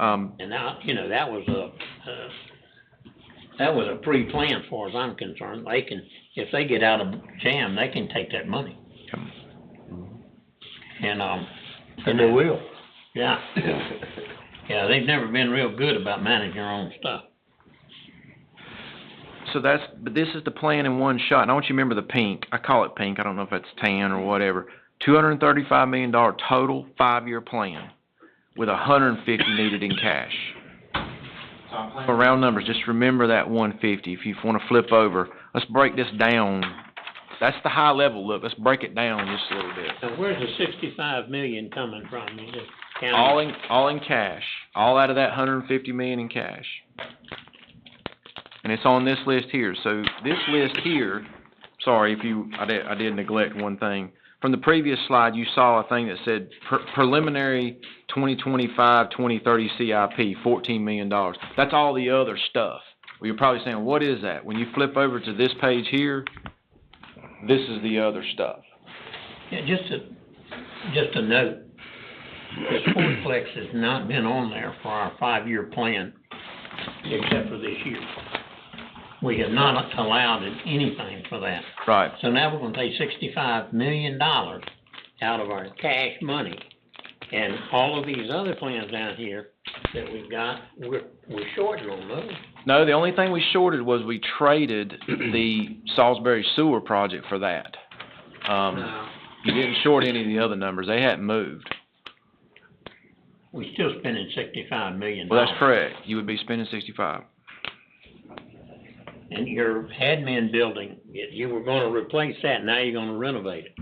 Um, And that, you know, that was a, uh, that was a pre-plan as far as I'm concerned. They can, if they get out of jam, they can take that money. Yep. And, um. And they will. Yeah, yeah, they've never been real good about managing their own stuff. so that's, but this is the plan in one shot, and I want you to remember the pink, I call it pink, I don't know if that's tan or whatever. Two hundred and thirty-five million dollar total, five-year plan, with a hundred and fifty needed in cash. So I'm planning, For round numbers, just remember that one fifty, if you wanna flip over, let's break this down. That's the high level look, let's break it down just a little bit. Now, where's the sixty-five million coming from? Is it county? All in, all in cash, all out of that hundred and fifty million in cash. And it's on this list here, so this list here, sorry if you, I did, I did neglect one thing. From the previous slide, you saw a thing that said pre- preliminary 2025-2030 CIP, fourteen million dollars. That's all the other stuff. Well, you're probably saying, what is that? When you flip over to this page here, this is the other stuff. Yeah, just a, just a note, the Sportsplex has not been on there for our five-year plan, except for this year. We have not allowed anything for that. Right, So now we're gonna take sixty-five million dollars out of our cash money. And all of these other plans down here that we've got, we're, we're shorting on those. No, the only thing we shorted was we traded the Salisbury Sewer project for that. Um, Now, you didn't short any of the other numbers, they hadn't moved. We're still spending sixty-five million Well, dollars. that's correct, you would be spending sixty-five. And your admin building, you you were gonna replace that, now you're gonna renovate it.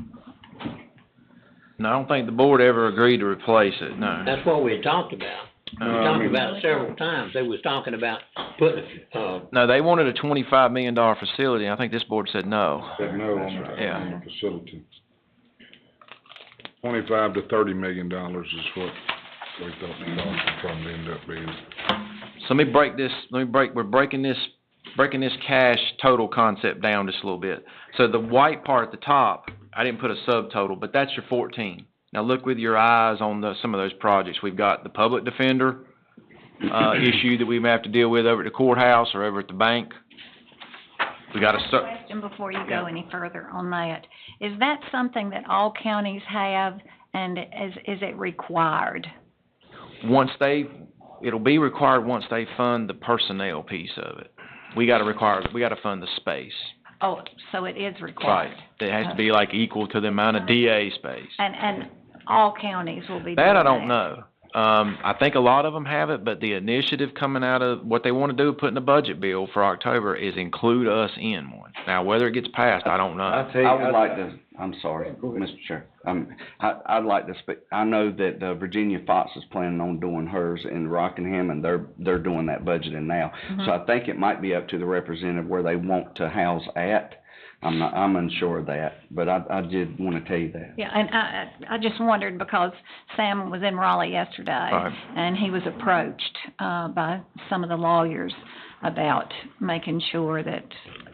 No, I don't think the board ever agreed to replace it, no. That's what we had talked about. We Um, talked about it several times. They was talking about putting, uh, No, they wanted a twenty-five million dollar facility, and I think this board said no. Said no on That's the, right. on the facility. Twenty-five to thirty million dollars is what we thought the cost would probably end up being. So let me break this, let me break, we're breaking this, breaking this cash total concept down just a little bit. So the white part at the top, I didn't put a subtotal, but that's your fourteen. Now look with your eyes on the, some of those projects. We've got the public defender, uh, issue that we may have to deal with over at the courthouse or over at the bank. We got a cer- Question before you go any further on that. Is that something that all counties have and is, is it required? once they, it'll be required once they fund the personnel piece of it. We gotta require, we gotta fund the space. Oh, so it is Right. required? It has to be like equal to the amount of DA space. And, and all counties will be doing that? That I don't know. Um, I think a lot of them have it, but the initiative coming out of, what they wanna do, put in a budget bill for October is include us in one. Now, whether it gets passed, I don't know. I tell you, I would I- like to, I'm sorry, Mr. Chair, um, I, I'd like to speak, I know that, uh, Virginia Fox is planning on doing hers in Rockingham, and they're, they're doing that budgeting now. Mm-hmm. So I think it might be up to the representative where they want to house at, I'm not, I'm unsure of that, but I, I did wanna tell you that. Yeah, and I, I I just wondered because Sam was in Raleigh yesterday. Right. And he was approached, uh, by some of the lawyers about making sure that,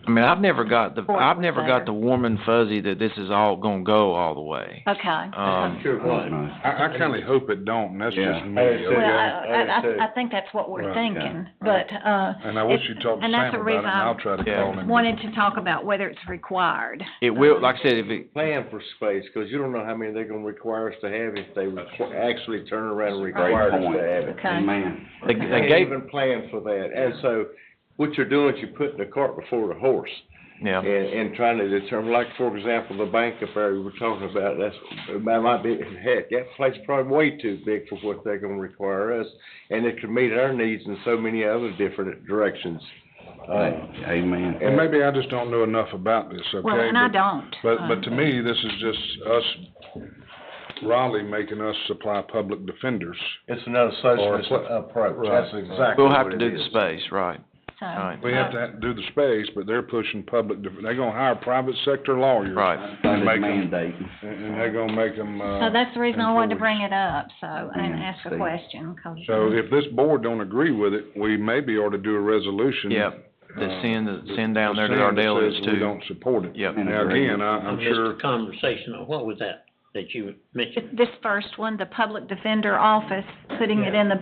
I mean, I've never got the, Or I've never got better. the warm and fuzzy that this is all gonna go all the way. okay. Um, sure I don't what. know. I, I kinda hope it don't, and that's just Yeah. me, Well, Well, okay? I, I, too. I- I think that's what we're Right, thinking, but, uh. And I wish it's- you'd talk to Sam and that's about the it, and reason I I'll try to Yeah. call him. Wanted to talk about whether it's required. It will, like I said, if it, Plan for space, cause you don't know how many they're gonna require us to have if they requ- actually turn around and require us point. to have it. Okay. Amen. they, They they didn't gave, even plan for that, and so what you're doing is you're putting the cart before the horse. yeah. And, and trying to determine, like, for example, the bank affair we were talking about, that's, that might be, heck, that place is probably way too big for what they're gonna require us. And it could meet our needs in so many other different directions. Uh, Amen. And maybe I just don't know enough about this, okay? Well, and I But- don't. um, But, but to me, this is just us, Raleigh making us supply public defenders. It's another socialist Or- approach, Right. that's exactly We'll what have to it do the is. space, right, So, right, We have to ha- do the space, but they're pushing public, def- they're gonna hire private sector lawyers. right. Funded Make 'em- mandate. And, and they're gonna make them, uh. so that's the reason I wanted to enforced. bring it up, so, and ask the Steve. question, 'cause- So if this board don't agree with it, we maybe ought to do a resolution. Yep, to uh, send, send down there to saying our that delegates says We too. don't support it. Yep. Now, again, I, I'm Missed sure, the Conversation, or what was that, that you mentioned? This first one, the public defender office, putting it in the